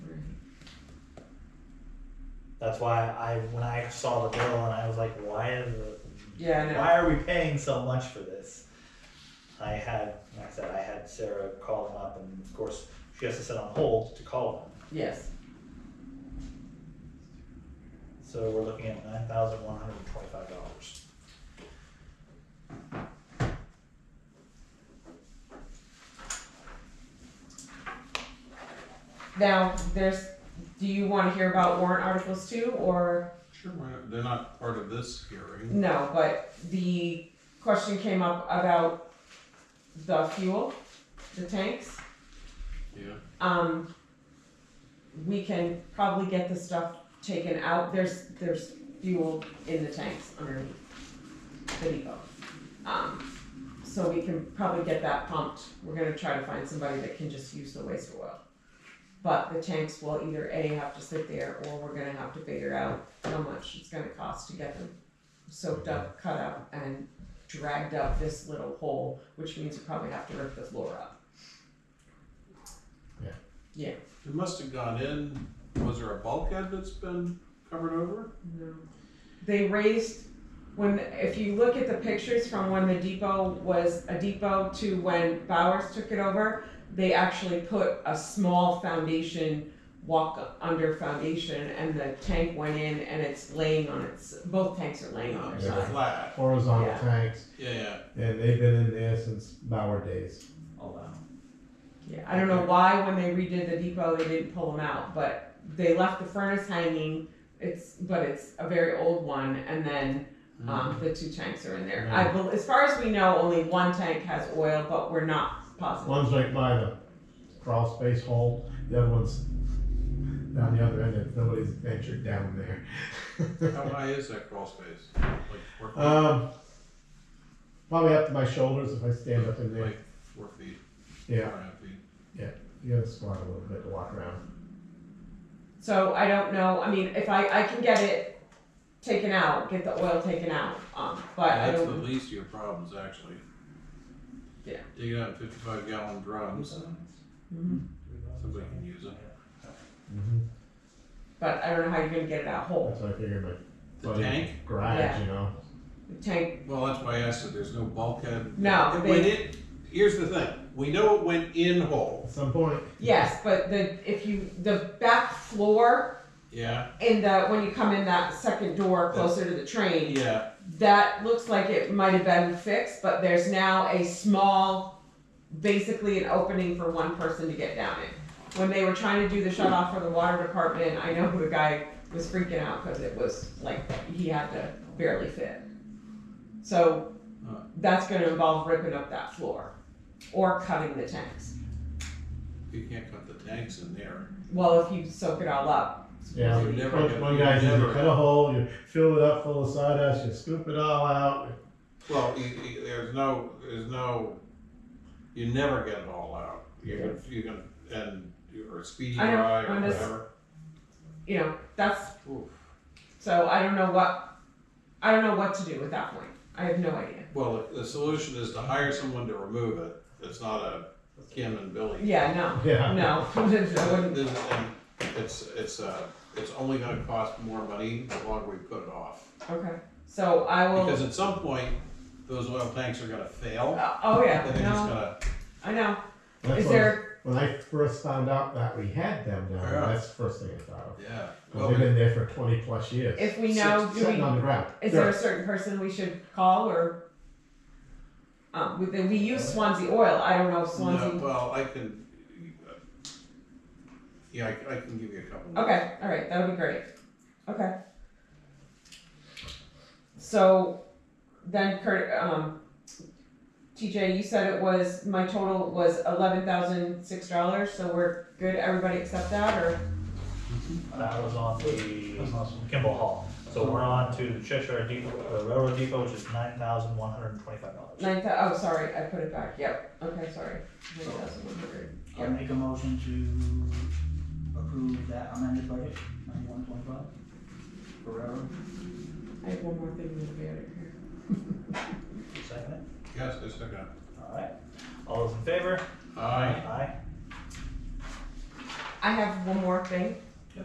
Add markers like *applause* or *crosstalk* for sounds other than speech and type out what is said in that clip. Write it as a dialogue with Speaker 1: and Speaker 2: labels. Speaker 1: That's why I when I saw the bill and I was like, why is
Speaker 2: Yeah, I know.
Speaker 1: why are we paying so much for this? I had like I said I had Sarah call them up and of course she has to sit on hold to call them.
Speaker 2: Yes.
Speaker 1: So we're looking at nine thousand one hundred and twenty-five dollars.
Speaker 2: Now, there's. Do you want to hear about warrant articles too, or
Speaker 3: Sure, why not? they're not part of this hearing.
Speaker 2: no? But the question came up about the fuel, the tanks.
Speaker 3: Yeah.
Speaker 2: Um, we can probably get the stuff taken out. There's there's fuel in the tanks underneath the depot. Um, so we can probably get that pumped. We're gonna try to find somebody that can just use the waste oil. But the tanks will either A have to sit there or we're gonna have to figure out how much it's gonna cost to get them soaked up, cut up and dragged up this little hole, which means we probably have to rip the floor up.
Speaker 3: It must have gone in, was there a bulkhead that's been covered over?
Speaker 2: No. They raised, when, if you look at the pictures from when the depot was a depot to when Bowers took it over, they actually put a small foundation, walk under foundation, and the tank went in and it's laying on its, both tanks are laying on their
Speaker 3: It's
Speaker 2: side.
Speaker 3: flat.
Speaker 4: horizontal
Speaker 2: Yeah.
Speaker 4: tanks,
Speaker 3: Yeah, yeah.
Speaker 4: and they've been in there since Bauer days.
Speaker 1: Oh wow.
Speaker 2: Yeah, I don't know why when they redid the depot, they didn't pull them out, but they left the furnace hanging, it's, but it's a very old one, and then Um, the two tanks are in there. I bel as far as we know, only one tank has oil, but we're not positive.
Speaker 4: One's right by the crawl space hole, the other one's down the other end, and nobody's ventured down
Speaker 3: How
Speaker 4: there. *laughs*
Speaker 3: high is that crawl space? Like four feet?
Speaker 4: um, probably up to my shoulders if I stand up in there.
Speaker 3: Like four feet, four
Speaker 4: Yeah,
Speaker 3: and a half feet.
Speaker 4: you gotta squat a little bit to walk around.
Speaker 2: So I don't know. I mean, if I, I can get it taken out, get the oil taken out, um, but I
Speaker 3: That's the
Speaker 2: don't.
Speaker 3: least of your problems, actually.
Speaker 2: Yeah.
Speaker 3: Dig it out in fifty-five gallon drums,
Speaker 2: Mhm.
Speaker 3: somebody can use it.
Speaker 4: Mm-hmm.
Speaker 2: But I don't know how you're gonna get it out whole.
Speaker 4: That's what I figured. My
Speaker 3: The
Speaker 4: buddy
Speaker 3: tank,
Speaker 4: garage,
Speaker 2: Yeah.
Speaker 4: you know.
Speaker 2: The tank,
Speaker 3: well, that's why I asked if there's no bulkhead.
Speaker 2: No,
Speaker 3: It
Speaker 2: they-
Speaker 3: went in, here's the thing, we know it went in hole,
Speaker 4: At some point,
Speaker 2: yes, but the, if you, the back floor
Speaker 3: yeah,
Speaker 2: in the, uh, when you come in that second door closer to the train,
Speaker 3: yeah.
Speaker 2: that looks like it might have been fixed, but there's now a small, basically an opening for one person to get down in. When they were trying to do the shut off for the water department, I know the guy was freaking out because it was like he had to barely fit. So
Speaker 3: Huh.
Speaker 2: that's going to involve ripping up that floor or cutting the tanks.
Speaker 3: You can't cut the tanks in there.
Speaker 2: Well, if you soak it all up.
Speaker 4: yeah.
Speaker 3: You're never
Speaker 4: One,
Speaker 3: gonna-
Speaker 4: one guy says you
Speaker 3: never-
Speaker 4: cut a hole, you fill it up full of sawdust, you scoop it all out, *laughs*
Speaker 3: Well, you, you, there's no, there's no, you never get it all out. You're gonna, you're gonna, and, or speedy
Speaker 2: I know,
Speaker 3: dry or
Speaker 2: I'm just-
Speaker 3: whatever.
Speaker 2: You know, that's
Speaker 3: Oof.
Speaker 2: so I don't know what I don't know what to do at that point. I have no idea.
Speaker 3: Well, the, the solution is to hire someone to remove it. It's not a Kim and Billy.
Speaker 2: Yeah, no.
Speaker 4: yeah.
Speaker 2: No, *laughs* I wouldn't.
Speaker 3: This- and It's, it's, uh, it's only gonna cost more money the longer we put it off.
Speaker 2: Okay, so I will.
Speaker 3: Because at some point, those oil tanks are gonna fail.
Speaker 2: Uh, oh yeah,
Speaker 3: And they're just
Speaker 2: no,
Speaker 3: gonna,
Speaker 2: I know. Is
Speaker 4: That's what I was-
Speaker 2: there?
Speaker 4: When I first found out that we had them down there,
Speaker 3: Yeah.
Speaker 4: that's the first thing I thought of.
Speaker 3: yeah.
Speaker 4: 'Cause
Speaker 3: Well,
Speaker 4: they've been there for 20 plus years.
Speaker 2: If we know, do
Speaker 4: sitting on
Speaker 2: we?
Speaker 4: the ground.
Speaker 2: Is there a certain person we should call or? Um, we, we use Swansea oil. I don't know if
Speaker 3: No,
Speaker 2: Swansea.
Speaker 3: well, I can, yeah, I, I can give you a couple.
Speaker 2: Okay, all right, that would be great. Okay. So, then Kurt, um, TJ, you said it was my total was eleven thousand six dollars. So we're good. Everybody accept that or?
Speaker 1: That was on the Kimball Hall. So we're on to the Cheshire Depot, uh, Railroad Depot, which is nine thousand one hundred and twenty-five dollars.
Speaker 2: Nine thou- oh, sorry, I put it back, yep, okay, sorry, nine thousand one hundred,
Speaker 5: I make a motion to approve that amended budget, ninety-one point five, for railroad.
Speaker 2: I have one more thing to be out of here.
Speaker 1: Second it?
Speaker 3: Yes, I still got
Speaker 1: All right. All those in favor?
Speaker 3: it. Aye.
Speaker 1: Aye.
Speaker 2: I have one more thing,